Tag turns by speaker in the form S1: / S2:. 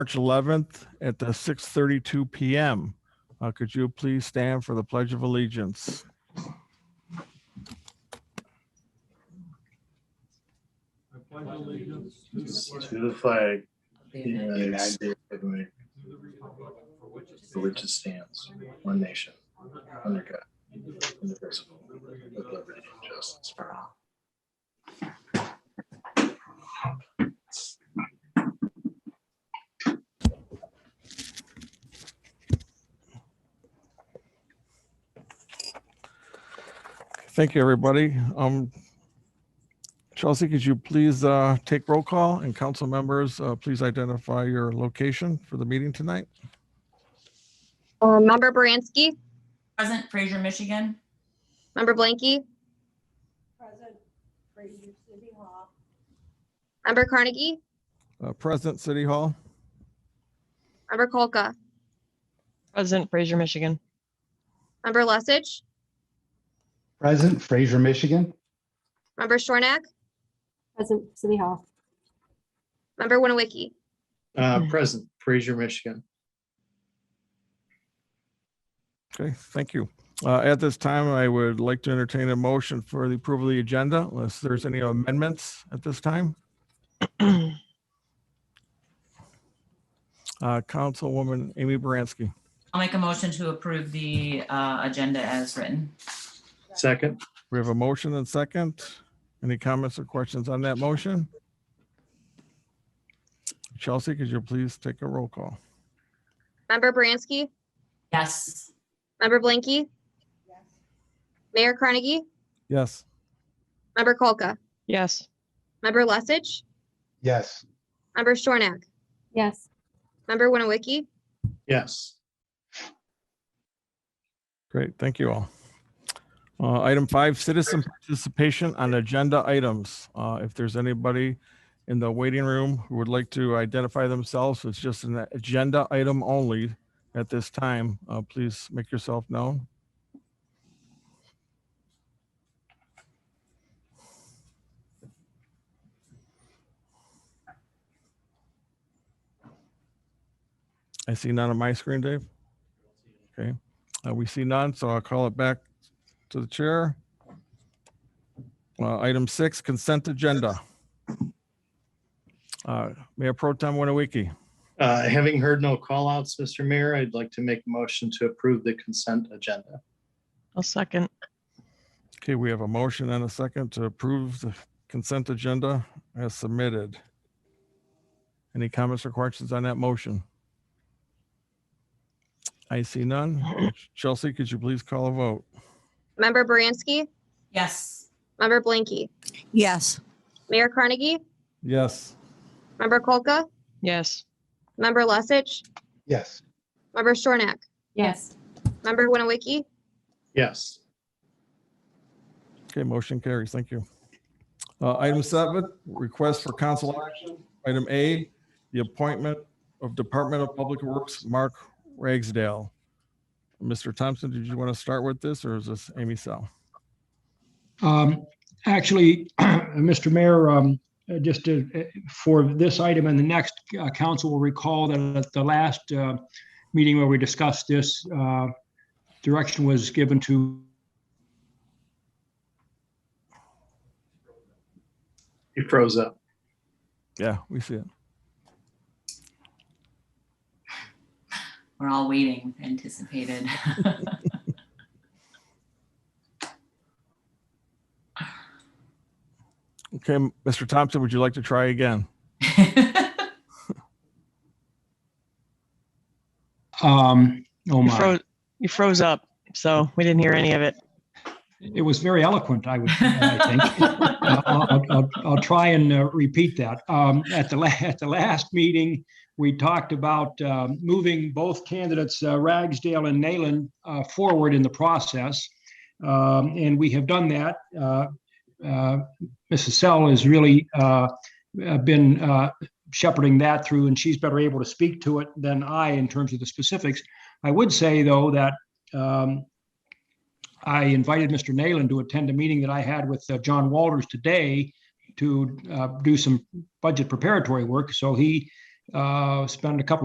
S1: March 11th at the 6:32 PM. Uh, Could you please stand for the Pledge of Allegiance?
S2: To the flag, of the United States of America, for which it stands, one nation, under God, indivisible, with liberty and justice for all.
S1: Thank you, everybody. Um, Chelsea, could you please uh, take roll call and council members, uh, please identify your location for the meeting tonight?
S3: Uh, Member Baranski,
S4: Present, Fraser, Michigan.
S3: Member Blanky,
S5: Present, Fraser City Hall.
S3: Member Carnegie,
S1: Uh, Present City Hall,
S3: Member Kolka,
S6: Present, Fraser, Michigan.
S3: Member Lesich,
S7: Present, Fraser, Michigan.
S3: Member Shornak,
S5: Present, City Hall.
S3: Member Winawiki.
S2: Uh, present, Fraser, Michigan.
S1: okay, thank you. Uh, At this time, I would like to entertain a motion for the approval of the agenda unless there's any amendments at this time. Uh, Councilwoman Amy Baranski.
S4: I'll make a motion to approve the uh, agenda as written.
S2: Second,
S1: We have a motion and second. Any comments or questions on that motion? Chelsea, could you please take a roll call?
S3: Member Baranski,
S4: Yes.
S3: Member Blanky, Mayor Carnegie,
S1: Yes.
S3: Member Kolka,
S6: Yes,
S3: Member Lesich,
S7: Yes,
S3: Member Shornak,
S5: Yes,
S3: Member Winawiki,
S2: yes,
S1: Great, thank you all. Uh, Item five, citizen participation on agenda items. Uh, If there's anybody in the waiting room who would like to identify themselves, it's just an agenda item only at this time. uh, Please make yourself known. I see none on my screen, Dave. Okay. Uh, We see none, so I'll call it back to the chair. Uh, Item six, consent agenda. Uh, Mayor Pro Tem Winawiki,
S2: uh, having heard no callouts, Mr. Mayor, I'd like to make a motion to approve the consent agenda.
S6: I'll second.
S1: okay, we have a motion and a second to approve the consent agenda as submitted. Any comments or questions on that motion? I see none. Chelsea, could you please call a vote?
S3: Member Baranski,
S4: Yes.
S3: Member Blanky,
S8: Yes,
S3: Mayor Carnegie,
S1: Yes.
S3: Member Kolka,
S6: Yes,
S3: Member Lesich,
S7: yes,
S3: Member Shornak,
S5: yes,
S3: Member Winawiki,
S2: Yes,
S1: Okay, motion carries. Thank you. Uh, Item seven, request for council action. Item A, the appointment of Department of Public Works, Mark Ragsdale. Mr. Thompson, did you want to start with this or is this Amy Sal?
S9: Um, Actually, Mr. Mayor, um, uh, just to- uh, for this item and the next, uh, council will recall that at the last uh, meeting where we discussed this, uh, direction was given to,
S2: he froze up.
S1: Yeah, we see it.
S4: We're all waiting, anticipated.
S1: Okay, Mr. Thompson, would you like to try again?
S9: um, oh
S6: you
S9: my,
S6: froze, you froze up, so we didn't hear any of it.
S9: it was very eloquent, I would, I think. I'll- I'll, I'll, I'll try and uh, repeat that. Um, at the la- at the last meeting, we talked about um, moving both candidates, uh, Ragsdale and Nayland, uh, forward in the process, um, and we have done that. Uh, uh, Mrs. Sell has really uh, uh, been uh, shepherding that through, and she's better able to speak to it than I in terms of the specifics. I would say though that. Um, I invited Mr. Nayland to attend a meeting that I had with uh, John Walters today to uh, do some budget preparatory work. So he uh, spend a couple